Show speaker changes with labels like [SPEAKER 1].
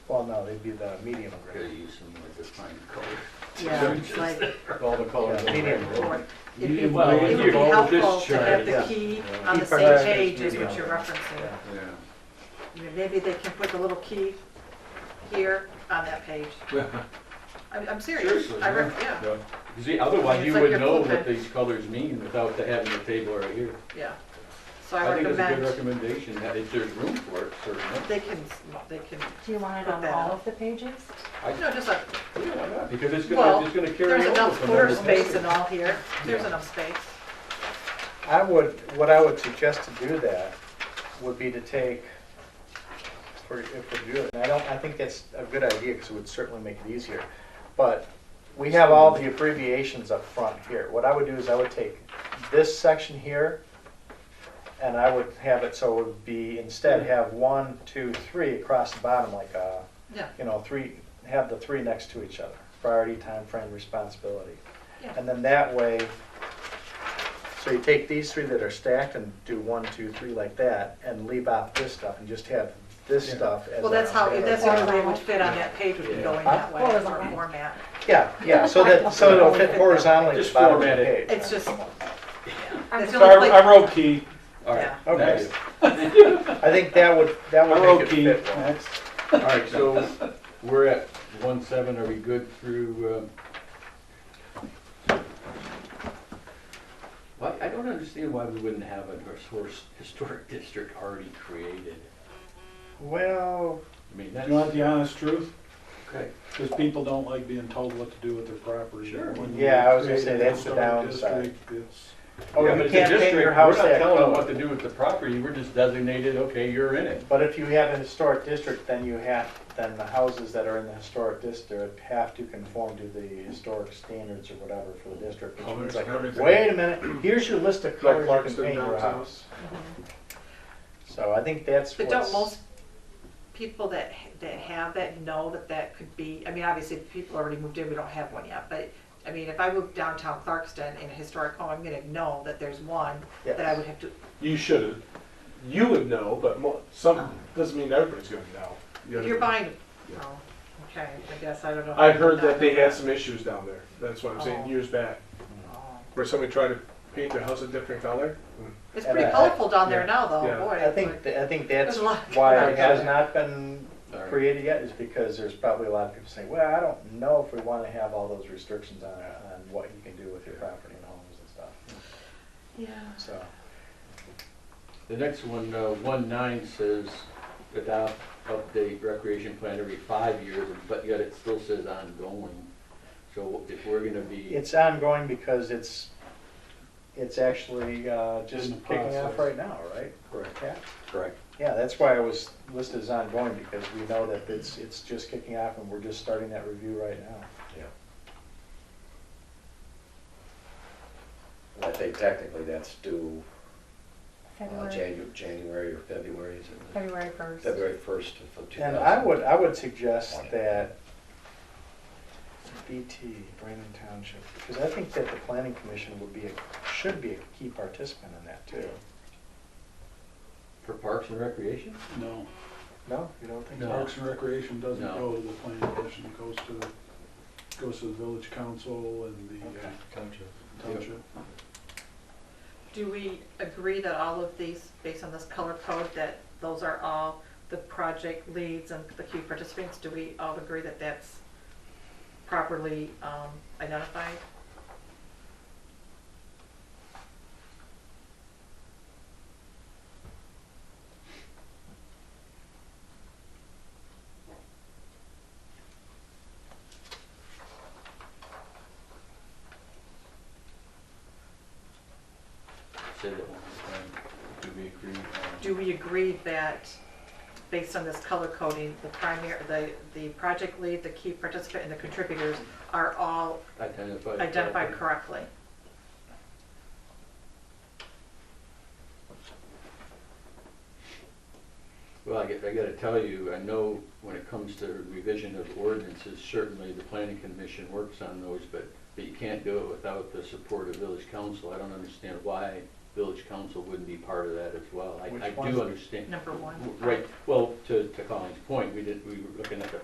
[SPEAKER 1] Well, no, they'd be the medium
[SPEAKER 2] Gotta
[SPEAKER 1] gray.
[SPEAKER 2] use them with the fine color.
[SPEAKER 3] Yeah, it's like,
[SPEAKER 4] with all the colors.
[SPEAKER 1] Yeah, medium
[SPEAKER 3] or
[SPEAKER 1] gray.
[SPEAKER 3] it'd be,
[SPEAKER 5] Well,
[SPEAKER 3] it would be
[SPEAKER 5] you hold this
[SPEAKER 3] helpful to have
[SPEAKER 1] chart,
[SPEAKER 3] the key on the
[SPEAKER 1] Keep
[SPEAKER 3] same
[SPEAKER 1] our-
[SPEAKER 3] page as what
[SPEAKER 1] Yeah.
[SPEAKER 3] you're referencing.
[SPEAKER 2] Yeah.
[SPEAKER 3] I mean, Maybe they can put the little key here on that page. I'm, I'm serious.
[SPEAKER 2] Seriously,
[SPEAKER 3] I,
[SPEAKER 2] yeah.
[SPEAKER 3] rec- yeah,
[SPEAKER 5] You see, otherwise you
[SPEAKER 3] It's like
[SPEAKER 5] would
[SPEAKER 3] your
[SPEAKER 5] know what
[SPEAKER 3] blueprint.
[SPEAKER 5] these colors mean without having the table right here.
[SPEAKER 3] yeah. So I
[SPEAKER 5] I think it's a good
[SPEAKER 3] recommend,
[SPEAKER 5] recommendation, that if there's room for it, certainly.
[SPEAKER 3] they can, they can,
[SPEAKER 6] Do you want it on all of the pages?
[SPEAKER 3] no, just like,
[SPEAKER 5] Yeah, why not? Because it's
[SPEAKER 3] Well,
[SPEAKER 5] gonna, it's gonna carry
[SPEAKER 3] there's
[SPEAKER 5] over
[SPEAKER 3] enough
[SPEAKER 5] from
[SPEAKER 3] floor
[SPEAKER 5] every
[SPEAKER 3] space
[SPEAKER 5] picture.
[SPEAKER 3] and all here. There's
[SPEAKER 5] Yeah.
[SPEAKER 3] enough space.
[SPEAKER 1] I would, what I would suggest to do that would be to take, for, if we do it, and I don't, I think that's a good idea, because it would certainly make it easier. But we have all the abbreviations up front here. What I would do is I would take this section here, and I would have it so it would be, instead have one, two, three across the bottom, like a,
[SPEAKER 3] Yeah,
[SPEAKER 1] you know, three, have the three next to each other. Priority, time frame, responsibility.
[SPEAKER 3] Yeah.
[SPEAKER 1] And then that way, so you take these three that are stacked and do one, two, three like that, and leave out this stuff and just have this
[SPEAKER 4] Yeah.
[SPEAKER 1] stuff as.
[SPEAKER 3] well, that's
[SPEAKER 1] our
[SPEAKER 3] how, that's the
[SPEAKER 1] priority.
[SPEAKER 3] only way it would fit on that page, would be going that way,
[SPEAKER 6] Horizontal.
[SPEAKER 3] or format.
[SPEAKER 1] Yeah, yeah, so that, so it'll fit horizontally at the
[SPEAKER 5] Just
[SPEAKER 1] bottom of the
[SPEAKER 5] format
[SPEAKER 1] page.
[SPEAKER 5] it.
[SPEAKER 3] It's just, that's the
[SPEAKER 6] So
[SPEAKER 3] only place.
[SPEAKER 4] wrote key,
[SPEAKER 5] All right,
[SPEAKER 3] Yeah.
[SPEAKER 1] Okay.
[SPEAKER 5] next.
[SPEAKER 1] I think that would, that would make it fit well.
[SPEAKER 5] All right, so we're at one seven, are we good through, uh? um, why, I don't understand why we wouldn't have a historic, historic district already created.
[SPEAKER 1] Well,
[SPEAKER 5] I mean,
[SPEAKER 4] You want
[SPEAKER 5] that's,
[SPEAKER 4] the honest truth?
[SPEAKER 5] okay,
[SPEAKER 4] Because people don't like being told what to do with their property.
[SPEAKER 5] Sure.
[SPEAKER 4] When
[SPEAKER 1] Yeah, I was gonna
[SPEAKER 4] you
[SPEAKER 1] say
[SPEAKER 4] create a
[SPEAKER 1] that's the
[SPEAKER 4] historic
[SPEAKER 1] downside.
[SPEAKER 4] district, it's-
[SPEAKER 1] oh,
[SPEAKER 5] Yeah,
[SPEAKER 1] you
[SPEAKER 5] but it's a
[SPEAKER 1] can't paint
[SPEAKER 5] district.
[SPEAKER 1] your house
[SPEAKER 5] We're not
[SPEAKER 1] that
[SPEAKER 5] telling them
[SPEAKER 1] color.
[SPEAKER 5] what to do with the property, we're just designated, okay, you're in it.
[SPEAKER 1] But if you have a historic district, then you have, then the houses that are in the historic district have to conform to the historic standards or whatever for the district.
[SPEAKER 5] Oh,
[SPEAKER 1] which means like, Wait a minute, here's your list of colors you can paint your house. So I think that's
[SPEAKER 3] But don't
[SPEAKER 1] what's,
[SPEAKER 3] most people that, ha- that have that know that that could be, I mean, obviously, if people already moved in, we don't have one yet, but, I mean, if I moved downtown Clarkston in a historic home, I'm gonna know that there's one that I
[SPEAKER 1] Yes.
[SPEAKER 3] would have to,
[SPEAKER 7] You shouldn't. You would know, but mo- some doesn't mean everybody's going to know. You know
[SPEAKER 3] you're
[SPEAKER 7] what I mean?
[SPEAKER 3] buying, oh, okay, I guess, I don't know.
[SPEAKER 7] I've heard that they had some issues down there. That's what I'm
[SPEAKER 3] Oh.
[SPEAKER 7] saying. Years back,
[SPEAKER 3] Oh.
[SPEAKER 7] where somebody tried to paint their house a different color.
[SPEAKER 3] It's
[SPEAKER 1] And
[SPEAKER 3] pretty
[SPEAKER 1] I-
[SPEAKER 3] colorful down there
[SPEAKER 7] yeah,
[SPEAKER 3] now, though,
[SPEAKER 7] yeah.
[SPEAKER 3] boy.
[SPEAKER 1] I
[SPEAKER 3] it's
[SPEAKER 1] think,
[SPEAKER 3] like-
[SPEAKER 1] th- I think that's
[SPEAKER 3] There's a lot
[SPEAKER 1] why
[SPEAKER 3] going
[SPEAKER 1] it has
[SPEAKER 3] on.
[SPEAKER 1] not been
[SPEAKER 5] All right.
[SPEAKER 1] created yet, is because there's probably a lot of people saying, well, I don't know if we wanna have all those restrictions on, on what you can do with your property and homes and stuff,
[SPEAKER 3] Yeah.
[SPEAKER 1] so.
[SPEAKER 5] The next one, uh, one nine says adopt, update recreation plan every five years, but yet it still says ongoing. So if we're gonna be.
[SPEAKER 1] It's ongoing because it's, it's actually uh, just
[SPEAKER 4] In the
[SPEAKER 1] kicking off
[SPEAKER 4] process.
[SPEAKER 1] right now, right?
[SPEAKER 5] Correct.
[SPEAKER 1] Yeah,
[SPEAKER 5] Correct.
[SPEAKER 1] yeah, that's why I was listed as ongoing, because we know that it's, it's just kicking off and we're just starting that review right now.
[SPEAKER 8] I think technically that's due uh,
[SPEAKER 6] February,
[SPEAKER 8] Janu- January or February, is it?
[SPEAKER 6] February first.
[SPEAKER 8] February 1st of 2000.
[SPEAKER 1] And I would, I would suggest that BT, Brandon Township, because I think that the planning commission would be, a should be a key participant in that too.
[SPEAKER 5] For parks and recreation?
[SPEAKER 4] No,
[SPEAKER 1] No, you don't think so?
[SPEAKER 4] Parks and Recreation doesn't
[SPEAKER 5] No.
[SPEAKER 4] go to the planning commission, it goes to, goes to the village council and the uh, township.
[SPEAKER 3] Do we agree that all of these, based on this color code, that those are all the project leads and the key participants? Do we all agree that that's properly um, identified?
[SPEAKER 5] Say that one more time. Do we agree? on-
[SPEAKER 3] Do we agree that, based on this color coding, the primary, the, the project lead, the key participant, and the contributors are all
[SPEAKER 5] Identify.
[SPEAKER 3] identified correctly?
[SPEAKER 5] Well, I get, I gotta tell you, I know when it comes to revision of ordinances, certainly the planning commission works on those, but, but you can't do it without the support of village council. I don't understand why village council wouldn't be part of that as well. I,
[SPEAKER 1] Which
[SPEAKER 5] I
[SPEAKER 1] ones?
[SPEAKER 5] do understand.
[SPEAKER 3] Number one.
[SPEAKER 5] Right, well, to, to Colleen's point, we did, we were looking at the